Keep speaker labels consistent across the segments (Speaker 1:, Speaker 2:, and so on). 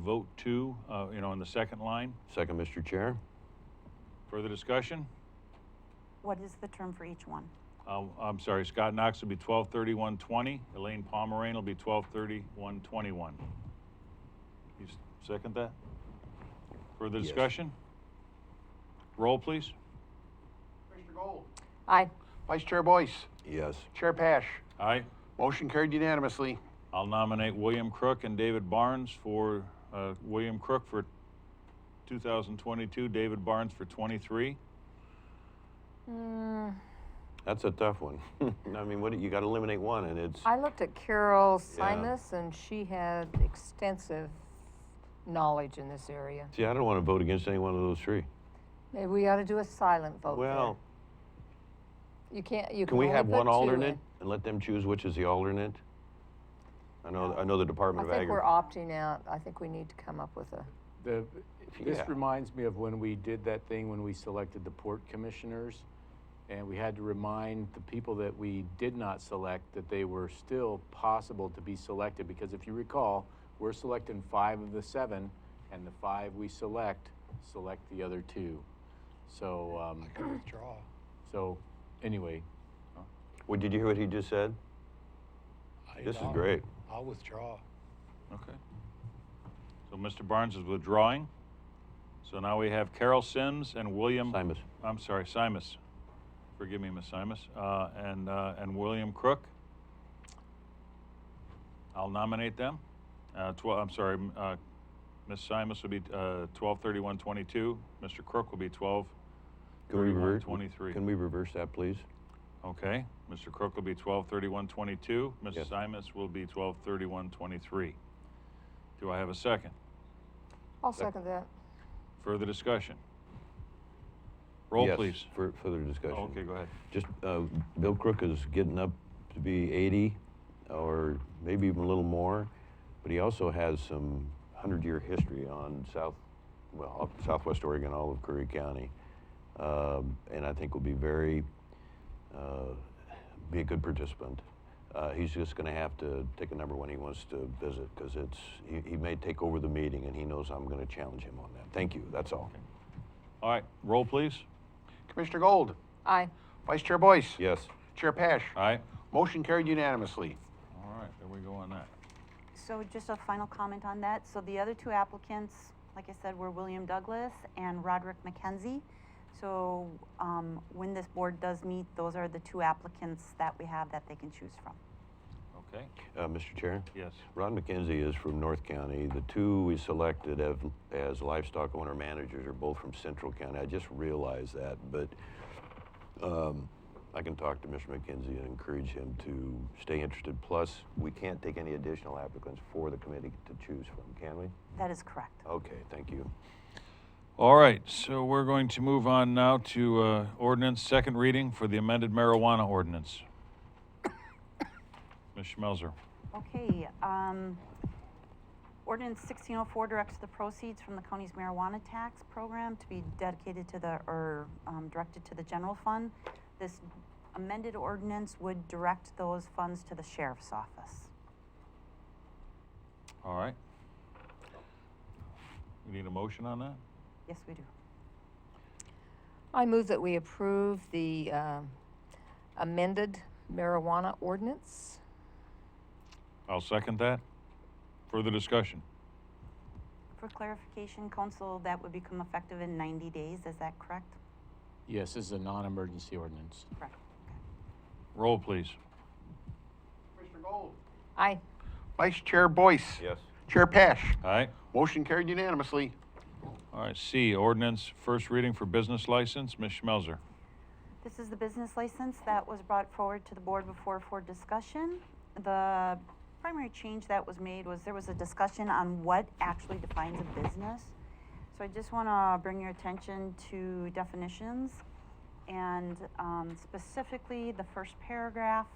Speaker 1: vote two, uh, you know, on the second line.
Speaker 2: Second, Mr. Chair.
Speaker 1: Further discussion?
Speaker 3: What is the term for each one?
Speaker 1: Uh, I'm sorry, Scott Knox will be twelve thirty-one twenty, Elaine Pomerain will be twelve thirty-one twenty-one. You s- second that? Further
Speaker 2: Yes.
Speaker 1: discussion? Roll, please.
Speaker 4: Mr. Gold.
Speaker 5: Aye.
Speaker 4: Vice Chair Boyce.
Speaker 2: Yes.
Speaker 4: Chair Pash.
Speaker 1: Aye.
Speaker 4: Motion carried unanimously.
Speaker 1: I'll nominate William Crook and David Barnes for, uh, William Crook for 2022, David Barnes for 23.
Speaker 5: Mm,
Speaker 2: That's a tough one. I mean, what, do- you gotta eliminate one and it's,
Speaker 5: I looked at Carol
Speaker 2: Yeah.
Speaker 5: Simus, and she had extensive knowledge in this area.
Speaker 2: see, I don't wanna vote against any one of those three.
Speaker 5: Maybe we ought to do a silent vote there.
Speaker 2: Well,
Speaker 5: You can't, you can
Speaker 2: can we
Speaker 5: only
Speaker 2: have
Speaker 5: put
Speaker 2: one
Speaker 5: two
Speaker 2: alternate
Speaker 5: in.
Speaker 2: and let them choose which is the alternate? I know, I know the
Speaker 5: I
Speaker 2: Department of
Speaker 5: think we're
Speaker 2: Agriculture.
Speaker 5: opting out. I think we need to come up with a,
Speaker 6: The, this
Speaker 2: Yeah.
Speaker 6: reminds me of when we did that thing when we selected the port commissioners, and we had to remind the people that we did not select that they were still possible to be selected, because if you recall, we're selecting five of the seven, and the five we select, select the other two. So, um. withdraw. So, anyway,
Speaker 2: Well, did you hear what he just said? This is great.
Speaker 7: I'll withdraw.
Speaker 1: Okay. So Mr. Barnes is withdrawing. So now we have Carol Sims and William.
Speaker 2: Simus.
Speaker 1: I'm sorry, Simus. Forgive me, Miss Simus. Uh, and, uh, and William Crook. I'll nominate them. Uh, twelve, I'm sorry, m- uh, Miss Simus will be, uh, twelve thirty-one twenty-two. Mr. Crook will be twelve
Speaker 2: Can we
Speaker 1: thirty-one
Speaker 2: reverse?
Speaker 1: twenty-three.
Speaker 2: Can we reverse that, please?
Speaker 1: Okay, Mr. Crook will be twelve thirty-one twenty-two,
Speaker 2: Yes.
Speaker 1: Mrs. Simus will be twelve thirty-one twenty-three. Do I have a second?
Speaker 5: I'll second that.
Speaker 1: Further discussion? Roll,
Speaker 2: Yes,
Speaker 1: please.
Speaker 2: For further discussion.
Speaker 1: Oh, Okay, go ahead.
Speaker 2: Just, uh, Bill Crook is getting up to be 80 or maybe even a little more, but he also has some 100 year history on South, well, up Southwest Oregon, all of Curry County. Um, and I think will be very, uh, be a good participant. Uh, he's just going to have to take a number when he wants to visit because it's he, he may take over the meeting and he knows I'm going to challenge him on that. Thank you. That's all.
Speaker 1: All right, roll, please.
Speaker 4: Commissioner Gold.
Speaker 5: Aye.
Speaker 4: Vice Chair Boyce.
Speaker 2: Yes. Uh.
Speaker 4: Chair Pash.
Speaker 1: All right,
Speaker 4: Motion carried unanimously.
Speaker 1: all right, there we go on that.
Speaker 3: So just a final comment on that. So the other two applicants, like I said, were William Douglas and Roderick McKenzie. So um, when this board does meet, those are the two applicants that we have that they can choose from.
Speaker 1: Okay,
Speaker 2: Uh, Mr. Chair.
Speaker 1: yes.
Speaker 2: Ron McKenzie is from North County. The two we selected have, as livestock owner managers are both from Central County. I just realized that, but um, I can talk to Mr. McKenzie and encourage him to stay interested. Plus, we can't take any additional applicants for the committee to choose from, can we?
Speaker 3: That is correct.
Speaker 2: Okay, thank you.
Speaker 1: All right, so we're going to move on now to uh, ordinance, second reading for the amended marijuana ordinance. Ms. Schmelzer.
Speaker 3: Okay, um, ordinance sixteen oh four directs the proceeds from the county's marijuana tax program to be dedicated to the, or, um, directed to the general fund. This amended ordinance would direct those funds to the sheriff's office.
Speaker 1: All right. We need a motion on that?
Speaker 3: Yes, we do.
Speaker 5: I move that we approve the um, amended marijuana ordinance.
Speaker 1: I'll second that. Further discussion?
Speaker 3: For clarification, council, that would become effective in ninety days, is that correct?
Speaker 6: yes, this is a non-emergency ordinance.
Speaker 3: Correct.
Speaker 1: Roll, please.
Speaker 4: Commissioner Gold.
Speaker 5: Aye.
Speaker 4: Vice Chair Boyce.
Speaker 2: Yes.
Speaker 4: Chair Pash.
Speaker 1: All right.
Speaker 4: Motion carried unanimously.
Speaker 1: All right, C, ordinance, first reading for business license, Ms. Schmelzer.
Speaker 3: This is the business license that was brought forward to the board before for discussion. The primary change that was made was there was a discussion on what actually defines a business. So I just want to bring your attention to definitions. And um, specifically, the first paragraph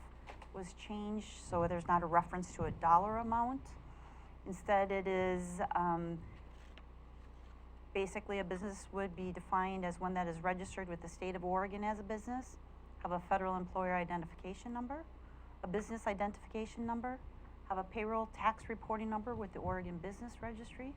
Speaker 3: was changed, so there's not a reference to a dollar amount. Instead, it is, um, basically a business would be defined as one that is registered with the state of Oregon as a business, have a federal employer identification number, a business identification number, have a payroll tax reporting number with the Oregon Business Registry,